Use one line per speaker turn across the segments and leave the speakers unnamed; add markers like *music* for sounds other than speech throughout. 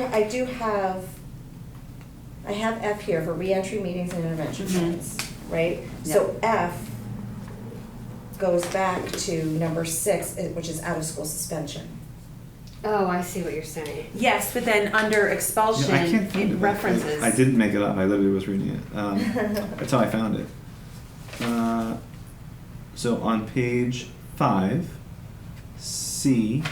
I do have, I have F here for reentry meetings and intervention
Mhm.
plans, right? So F goes back to number six, eh, which is out-of-school suspension.
Oh, I see what you're saying.
Yes, but then under
Yeah,
expulsion,
I can't find
it
it.
references.
I didn't make it up. I literally was reading it.
*laughs*
Um, that's how I found it. Uh, so on page five, C,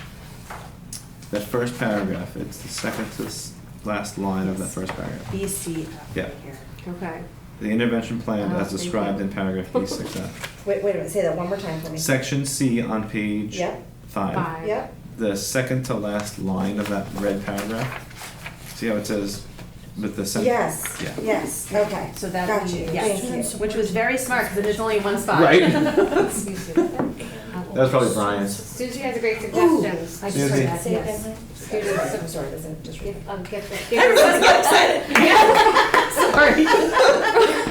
that first paragraph. It's the second to s- last line of that first paragraph.
B C
Yeah.
here.
Okay.
The intervention plan
Oh,
as
thank
described
you.
in paragraph B6F.
Wait, wait a minute, say that one more time for me.
Section C on page
Yep.
five.
Five.
Yep,
the second to last line of that red paragraph. See how it says with the sentence?
yes,
Yeah.
yes, okay.
So that
Got
we-
you,
yes,
thank you.
which was very smart because there's only one
*laughs*
spot.
Right. That was
That's
probably Brian's.
Susie has a great
Ooh, I
suggestion.
just
Susie.
heard that,
Say it
yes.
again,
Sorry, I'm sorry, that's a disrespect.
Give, um, give, the- give her-
Everyone's so
*laughs*
excited. Sorry.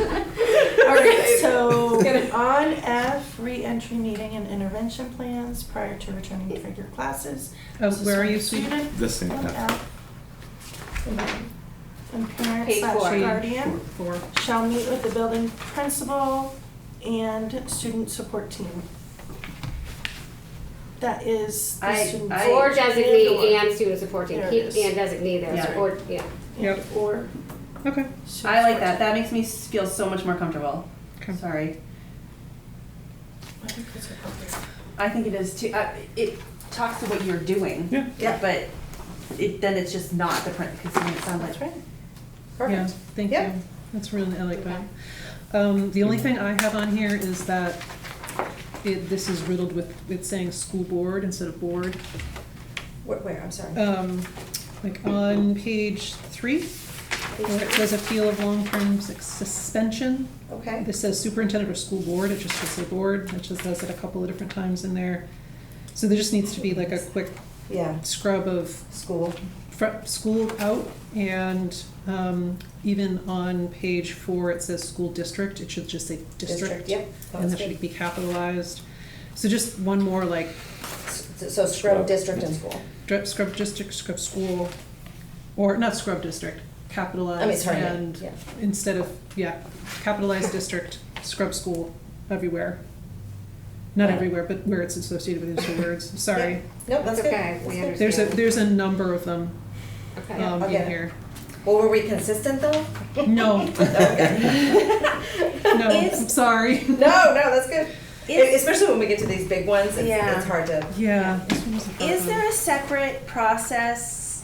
Okay, so
Get it.
on F, re-entry meeting and intervention plans prior to returning for your classes.
Oh, where are you, sweetie?
Student
This thing,
on
yeah.
F. And then- And parent
Page four.
slash guardian
Four.
shall meet with the building principal and student support team. That is the
I-
student.
I-
Or designate
or-
and student supporting.
There it
Keep
is.
and designate there,
Yeah.
or, yeah.
Yep.
Or.
Okay.
*laughs*
student
I like
support
that.
team.
That makes me s- feel so much more comfortable.
Okay.
Sorry.
I think that's appropriate.
I think it is too. Uh, it talks to what you're doing.
Yeah.
Yeah.
But it then it's just not the print because it sounds like
That's right.
Yeah,
Perfect.
thank
Yeah.
you. That's really, I like that. Um, the only thing I have on here is that it, this is riddled with, with saying school board instead of board.
Where, where, I'm sorry.
Um, like on page three, where it says appeal of long-term sus- suspension.
Okay.
This says superintendent or school board, it just should say board, it just does it a couple of different times in there. So there just needs to be like a quick
Yeah,
scrub of
school.
fr- school out, and um, even on page four, it says school district, it should just say district.
Yep.
And that should be capitalized. So just one more, like,
So so scrub
Scrub.
district and school.
dr- scrub district, scrub school, or not scrub district,
I mean,
capitalized,
sorry,
and
yeah.
instead of, yeah, capitalized district, scrub school, everywhere. Not
Yeah.
everywhere, but where it's associated with those
*laughs*
two words, sorry.
No, that's good.
Okay, we
That's good.
There's a, there's a number of them
Okay.
um, in
Okay.
here.
Well, were we consistent though?
*laughs*
No. No, I'm
It's-
sorry.
No, *laughs* no, that's good.
Is-
Especially when we get to these big ones, it's,
Yeah.
it's hard to.
Yeah. this one was a hard
Is
one.
there a separate process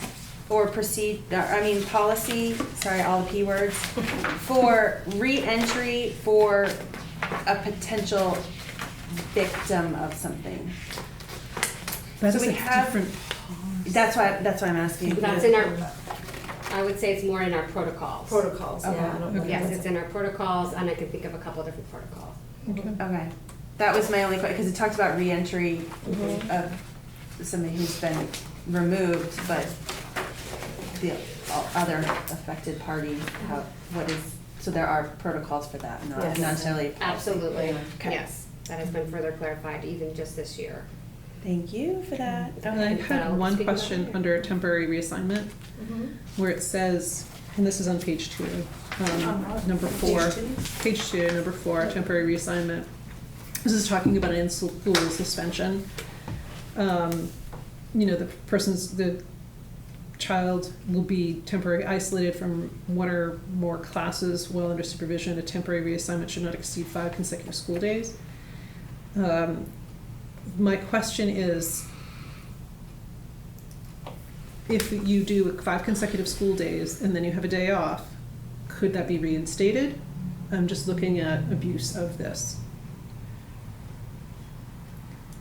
or proceed, or, I mean, policy, sorry, all the P words,
*laughs*
for reentry for a potential victim of something?
That
so we
is a
have-
different.
That's why, that's why I'm asking.
That's in our, I would say it's more in our protocols.
Protocols, yeah. I don't know.
Okay.
Yes, it's in our protocols, and I can think of a couple different protocols.
Okay.
Okay, that was my only question, because it talked about reentry
Mm-hmm.
of somebody who's been removed, but the o- other affected party, how, what is, so there are protocols for that, not
Yes.
not necessarily.
Absolutely,
Okay.
yes. That has been further clarified even just this year.
Thank you for that.
And I
Okay.
So,
had one
speaking of-
question under temporary reassignment,
Mm-hmm.
where it says, and this is on page two, um,
Uh-huh.
number four.
Page two?
Page two, number four, temporary reassignment. This is talking about an in-school suspension. Um, You know, the person's, the child will be temporarily isolated from one or more classes while under supervision. A temporary reassignment should not exceed five consecutive school days. Um, My question is, if you do five consecutive school days and then you have a day off, could that be reinstated? I'm just looking at abuse of this.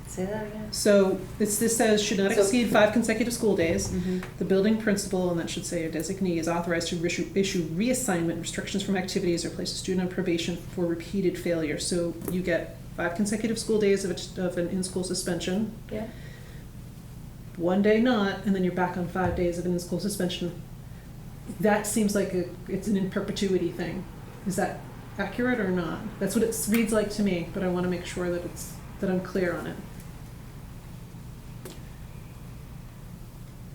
Say that again.
So it's, this says should not
So-
exceed five consecutive school days.
Mhm.
The building principal, and that should say a designee, is authorized to issue, issue reassignment restrictions from activities or place a student on probation for repeated failure. So you get five consecutive school days of, a- of an in-school suspension.
Yeah.
One day not, and then you're back on five days of an in-school suspension. That seems like a, it's an in perpetuity thing. Is that accurate or not? That's what it reads like to me, but I want to make sure that it's, that I'm clear on it.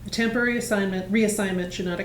A temporary assignment, reassignment should not